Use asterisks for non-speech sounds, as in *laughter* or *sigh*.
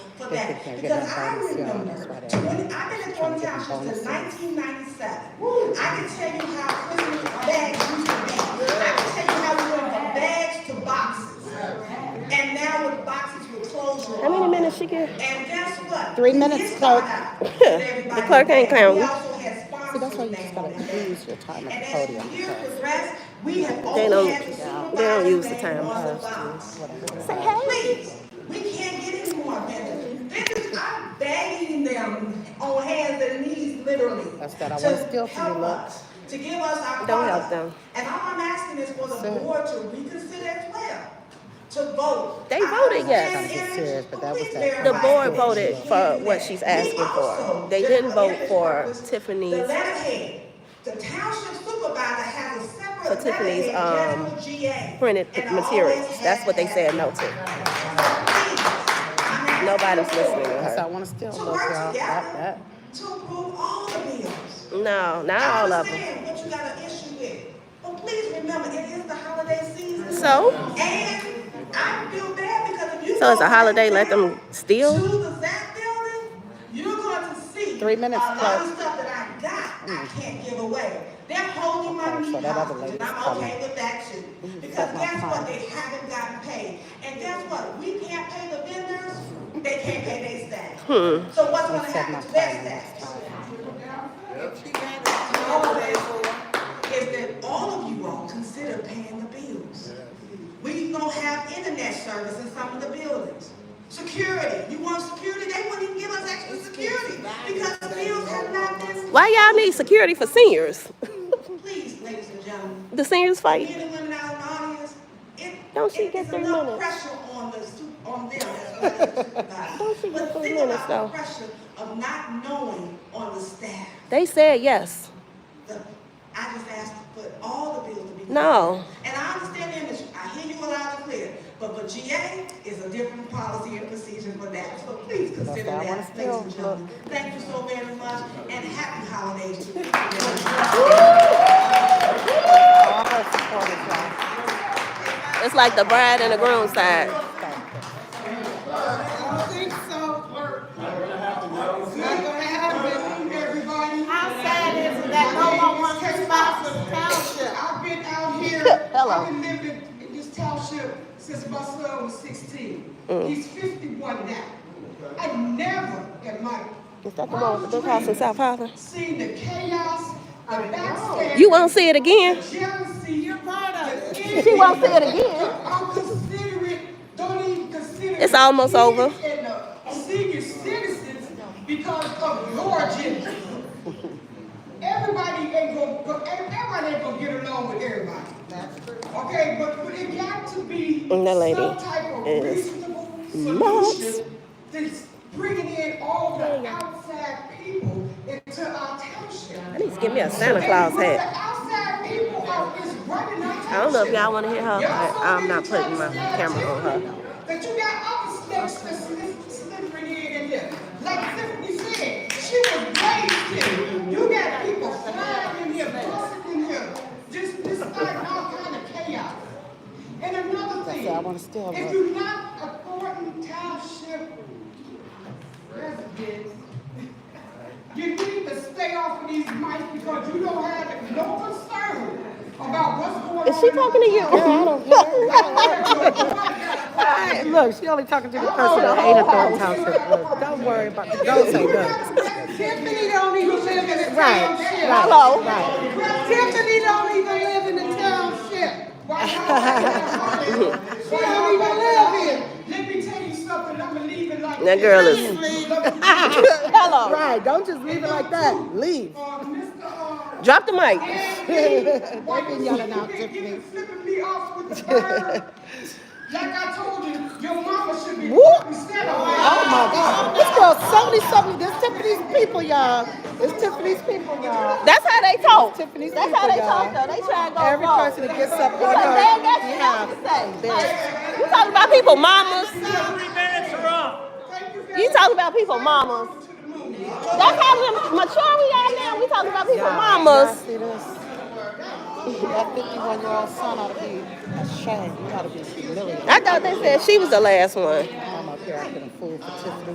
about that, think because they're I getting bonus, remember, uh, yeah, that's why they're twenty, I've been in trying Thornton to get Township since bonuses. nineteen ninety-seven. I can tell you how Christmas bags used to be, I can tell you how we went from bags to boxes. And now with boxes with clothes. How many minutes she get? And guess what? Three We minutes, did clerk. *laughs* start out with everybody The clerk ain't back. We counting. also had See, that's why you sponsors just back on gotta the day. use your time at And the as the podium. years progressed, we have They always don't- had to supervise. they don't use the things time. on the box. Say hey. Please, we can't get any more vendors. Vendors, I'm begging them on hands and knees, literally. That's that I to want still for you, help look. us, To give us our. Don't help products. them. And all I'm asking is for the Sir. board to reconsider as well, to vote. They I voted yes. understand I'm just serious, but that was Please that- verify The board that. voted for what she's asking for. They didn't vote for The Tiffany's. letterhead, the township supervisor has a For separate Tiffany's, letterhead, um, general GA. printed and I materials. always That's have what they had said it. no to. Please, I'm asking Nobody's the listening board to That's why I her. wanna still To look, y'all, work at together that. to approve all the bills. No, not all of I them. understand what you got an issue with, but please remember, it is the holiday season. So? And I feel bad because if you. So it's go a holiday, back let them down steal? To the Zach building, you're going to see. Three minutes, A lot of clerk. stuff that I got, I can't give away. They're holding my Okay, so meat that other hostage, and lady's I'm coming. okay with that too. Because cut my guess what, time. they haven't gotten paid. And guess what, we can't pay the vendors, they can't pay their staff. Hmm. So what's going to Please set my happen to their time next staff? time. is that all of you all consider paying the bills. We don't have internet service in some of the buildings. Security, you want security, they wouldn't even give us extra security because the bills have not been. Why y'all need security for seniors? *laughs* Please, ladies and gentlemen, The men seniors fight. and women out in the audience, it, Don't she it get is their enough minutes? pressure on the, su- on them as well as the supervisor. *laughs* Don't she get But their think minutes, about though? the Pressure of not knowing on the staff. They said yes. The- I just asked for all the bills to be. No. And I understand the industry, I hear you loud and clear, but for GA is a different policy and procedure for that, so please consider why I wanna that, ladies and still look. gentlemen. Thank you so very much, and happy holidays to you. All her supporters, y'all. It's like the bride and the groom side. Thank you. I don't think so. It's not gonna happen, everybody. Outside is that no one wants to spot It's the a township. township. I've been out here. *laughs* Hello. I've been living in this township since my son was sixteen. Mm. He's fifty-one now. I never in my Is that the one with the big house in South Harlem? seen the chaos, the backstabbing. You won't see it the again. Jealousy. You're part of it. She won't see it again. I'm considering, don't even consider. It's the almost kids over. And the senior citizens because of your agenda. Everybody ain't gonna, go- everybody ain't gonna get along with everybody. Okay, but but it got to be And Mm, that lady some type of is reasonable nuts. solution that's bringing in all the outside people into our township. I need to give me a Santa Claus hat. I don't know if y'all wanna hear her, but I'm not putting my camera on her. But you got other snakes that's slip- slithering in and there. Like Tiffany said, she was raised here. You got people flying in here, busting in here, just, just starting all kind of chaos. And another thing, why I wanna still if look. you're not a Thornton Township resident, you need to stay off of these mics because you don't have no concern about what's going on. Is she talking to you? I don't Hey, Look, she only talking to the person who ain't a Thornton Township. Look, don't worry about the Don't say nothing. Tiffany don't even live in the Right, township. Hello. Tiffany don't even live in the township. Why not? She don't even live here. Let me tell you something, I'ma leave it like That this. girl is- Please, let me- Hello. Right, don't just leave it like that. Leave. Uh, Mr. Uh, Drop the mic. Why been yelling out, Tiffany. Flipping me off *laughs* with the bird. Like I told you, your mama should be Whoop. fucking set up. Oh my God. This girl, so many, so many. This Tiffany's people, y'all. This Tiffany's people, y'all. That's how they talk. Tiffany's That's how people, they y'all. talk though. They try to go Every wrong. person that gets up on Because they ain't got her, shit yeah. else to say. Like, you talking about people mamas. Thank very You talking about people mamas. That's how we mature we are now. We talking about people mamas. Y'all see this? That 51 year old son ought to be ashamed. He ought to be humiliated. I thought they said she was the last one. I'm up here acting a fool for Tiffany.